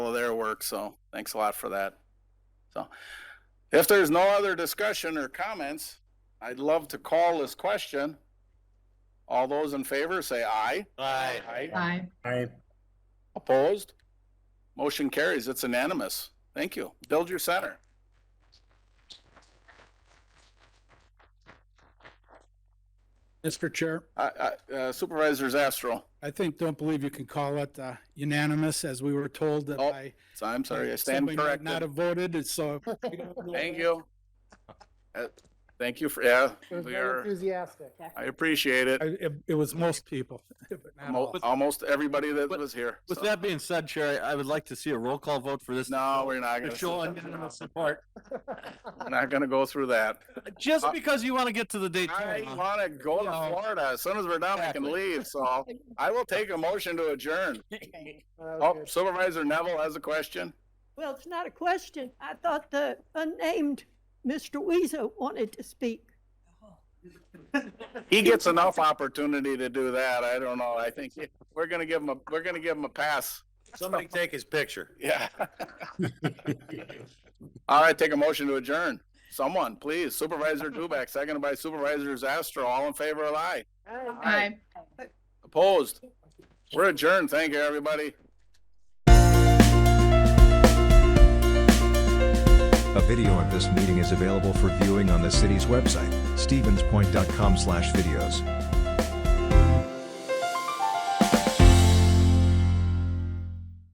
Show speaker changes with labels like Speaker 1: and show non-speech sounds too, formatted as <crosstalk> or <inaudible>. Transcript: Speaker 1: of their work. So thanks a lot for that. So if there's no other discussion or comments, I'd love to call this question. All those in favor say aye.
Speaker 2: Aye.
Speaker 3: Aye.
Speaker 4: Aye.
Speaker 1: Opposed? Motion carries. It's unanimous. Thank you. Build your center.
Speaker 5: Mr. Chair,
Speaker 1: I- I- uh, Supervisor Zastro.
Speaker 5: I think, don't believe you can call it uh, unanimous, as we were told that
Speaker 1: Oh,
Speaker 5: I.
Speaker 1: So I'm sorry, I stand
Speaker 5: somebody might
Speaker 1: corrected.
Speaker 5: Not have voted, and so.
Speaker 1: Thank you. Uh, Thank you for, yeah,
Speaker 6: It was
Speaker 1: we
Speaker 6: very
Speaker 1: are,
Speaker 6: enthusiastic.
Speaker 1: I appreciate it.
Speaker 5: I- It it was most people. <laughs> but not
Speaker 1: Mo-
Speaker 5: all.
Speaker 1: Almost everybody that
Speaker 2: With-
Speaker 1: was here.
Speaker 2: With
Speaker 1: so-
Speaker 2: that being said, Sherry, I would like to see a roll call vote for this.
Speaker 1: No, we're not
Speaker 2: To
Speaker 1: gonna,
Speaker 2: show unanimous support,
Speaker 1: we're not gonna go through that.
Speaker 2: just
Speaker 1: Uh,
Speaker 2: because you want to get to the date.
Speaker 1: <laughs> I
Speaker 2: tomorrow.
Speaker 1: wanna go to
Speaker 2: No.
Speaker 1: Florida. As soon as we're done, we can
Speaker 2: Exactly.
Speaker 1: leave,
Speaker 6: <laughs>
Speaker 1: so I will take a motion to adjourn.
Speaker 6: That was
Speaker 1: Oh,
Speaker 6: good.
Speaker 1: Supervisor Neville has
Speaker 6: <laughs>
Speaker 1: a question.
Speaker 7: Well, it's not a question. I thought the unnamed Mr. Weezer wanted to speak.
Speaker 1: He gets enough opportunity to do that. I don't know. I think he- we're gonna give him a, we're gonna give him a pass.
Speaker 2: Somebody take his picture.
Speaker 6: <laughs>
Speaker 1: Yeah. All right, take a motion to adjourn. Someone, please. Supervisor Dubek, seconded by Supervisor Zastro. All in favor, aye.
Speaker 3: Aye.
Speaker 1: Opposed? We're adjourned. Thank you, everybody.
Speaker 8: A video of this meeting is available for viewing on the city's website, stevenspoint.com/videos.